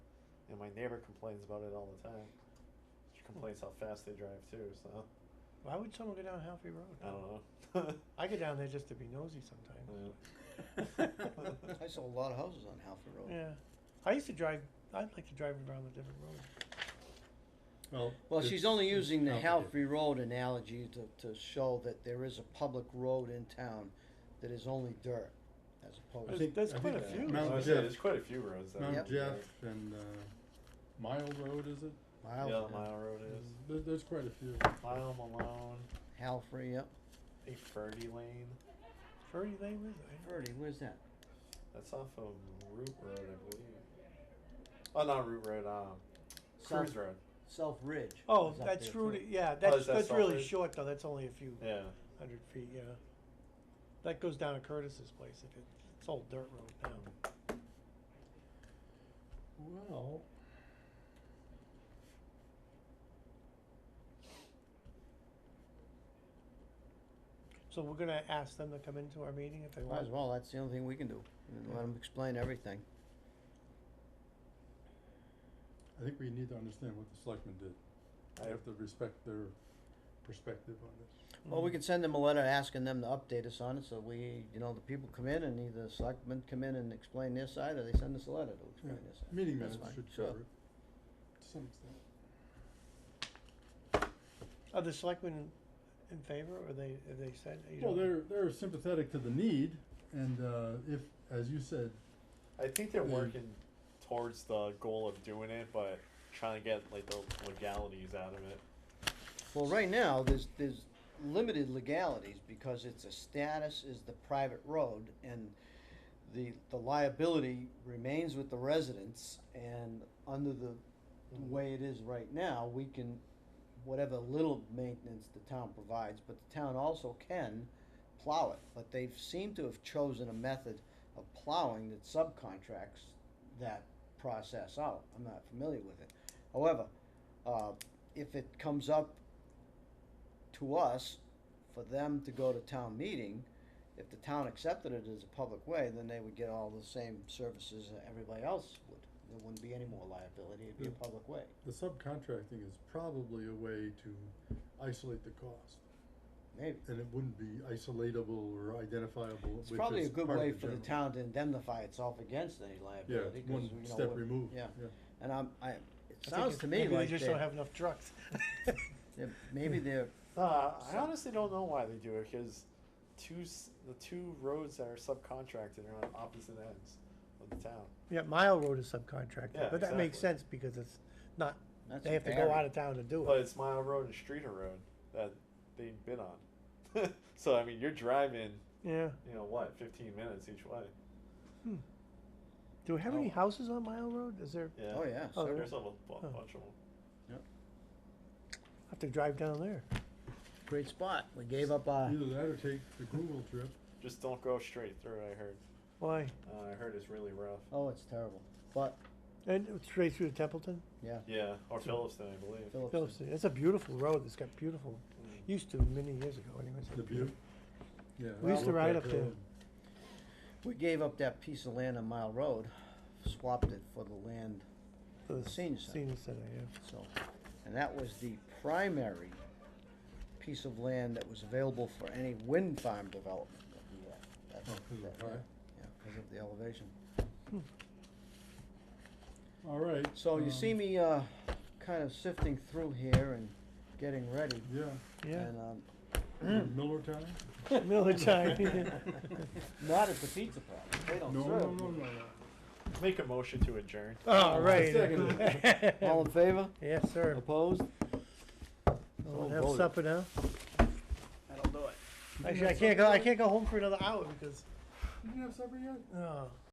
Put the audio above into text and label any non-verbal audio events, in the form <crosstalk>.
my neighbor complains about it all the time. She complains how fast they drive too. So Why would someone go down Halfway Road? I Oh. don't know. <laughs> I go down there just to be nosy sometimes. I saw a lot of houses on Halford Road. Yeah. I used to drive, I'd like to drive around the different roads. Well, Well, she's only it's- it's using the complicated. Halfrey Road analogy to, to show that there is a public road in town that is only dirt, as I opposed to. think- There's I quite think a few. I Mount was Jeff. gonna say, there's quite a few roads. that are Mount really Jeff bad. and uh, Mile Road, is it? Miles, Yeah, yeah. Mile Road is. There, there's quite a few. Mile Malone, Halfrey, yep. a Ferdy Lane. Furry Lane is it? Verdi, where's that? That's off of Route Road, I believe. Oh, not Route Road. Um, Cruise South- Road. Self Ridge. Oh, is up that's there, too. really, yeah, is that's, that that's really Salford? short though, that's only a few Yeah. hundred feet, yeah. That goes down to Curtis's place, it, it's all dirt road now. Well, So we're gonna ask them to come into our meeting if they Might want. as well, that's the only thing we can do, and let them explain everything. I think we need to understand what the selectmen did. I- I have to respect their perspective on this. Hmm. Well, we could send them a letter asking them to update us on it, so we, you know, the people come in and either selectmen come in and explain their side, or they send us a letter to explain Yeah, their side. Meeting That's minutes fine, should sure. cover it, to some extent. Are the selectmen in favor, or they, have they said, you Well, know? they're, they're sympathetic to the need, and uh, if, as you said, I think Hmm. they're Mm. working towards the goal of doing it, but trying to get like the legalities out of it. Well, right now, there's, there's limited legalities because it's a status is the private road and the, the liability remains with the residents and under the way it is right now, we can, whatever little maintenance the town provides, but the town also can plow it. But they've seemed to have chosen a method of plowing that subcontracts that process out. I'm not familiar with it. However, uh, if it comes up to us for them to go to town meeting, if the town accepted it as a public way, then they would get all the same services that everybody else would. There wouldn't be any more liability, it'd be a Yeah. public way. the subcontracting is probably a way to isolate the cost. Maybe. And it wouldn't be isolatable or identifiable, It's which probably is a good part of way for the general- town to indemnify itself against any Yeah, liability. it's 'cause, one you know, step we're- removed, Yeah, yeah. and I'm, I, it I think sounds it's- to me maybe like They just don't they're, have enough trucks. <laughs> they're- maybe they're, Uh, I So- honestly don't know why they do it because two s- the two roads that are subcontracted are on opposite ends of the town. Yeah, Mile Road is Yeah, subcontracted, but that makes exactly. sense because it's not, that's they have to go out of town to do But it. it's Mile Road and Streeter Road that they bid on. <laughs> so I mean, you're driving, Yeah, you know what, 15 minutes each way. do we have Oh. any houses on Mile Road? Is there, Yeah. Oh, yeah, Oh, so- There's a bu- Huh. bunch of them. I have to drive down there. great spot, we gave up uh, our, Either that or take the Google trip. Just don't go straight through. I heard. Why? Uh, I heard it's really rough. oh, it's terrible, but, And straight through to Templeton? yeah, Yeah, or Phillipston, I believe. Phillips. Phillips, it's a beautiful road, it's got beautiful, Mm. used to many years ago anyways. The view. Yeah. We used to look ride back up there. road. We gave up that piece of land on Mile Road, swapped it for the land, For the Senior Center. Senior Center, yeah. so, and that was the primary piece of land that was available for any wind farm development that we had. That's- Oh, 'cause of that- the high? Yeah, because of the elevation. All right. So you um, see me, uh, kind of sifting through here and getting ready, <clears throat> Yeah. Yeah, and, um, Miller Town? <laughs> Miller time, yeah. <laughs> <laughs> not at the pizza parlor, they No, don't no, serve. no, no, me. no. Make a motion to adjourn. All right. <laughs> Second. All in favor? Yes, sir. Opposed? We'll So have voted. supper now. That'll do it. Actually, I can't go, I can't go home for another hour because, You didn't have supper yet? oh.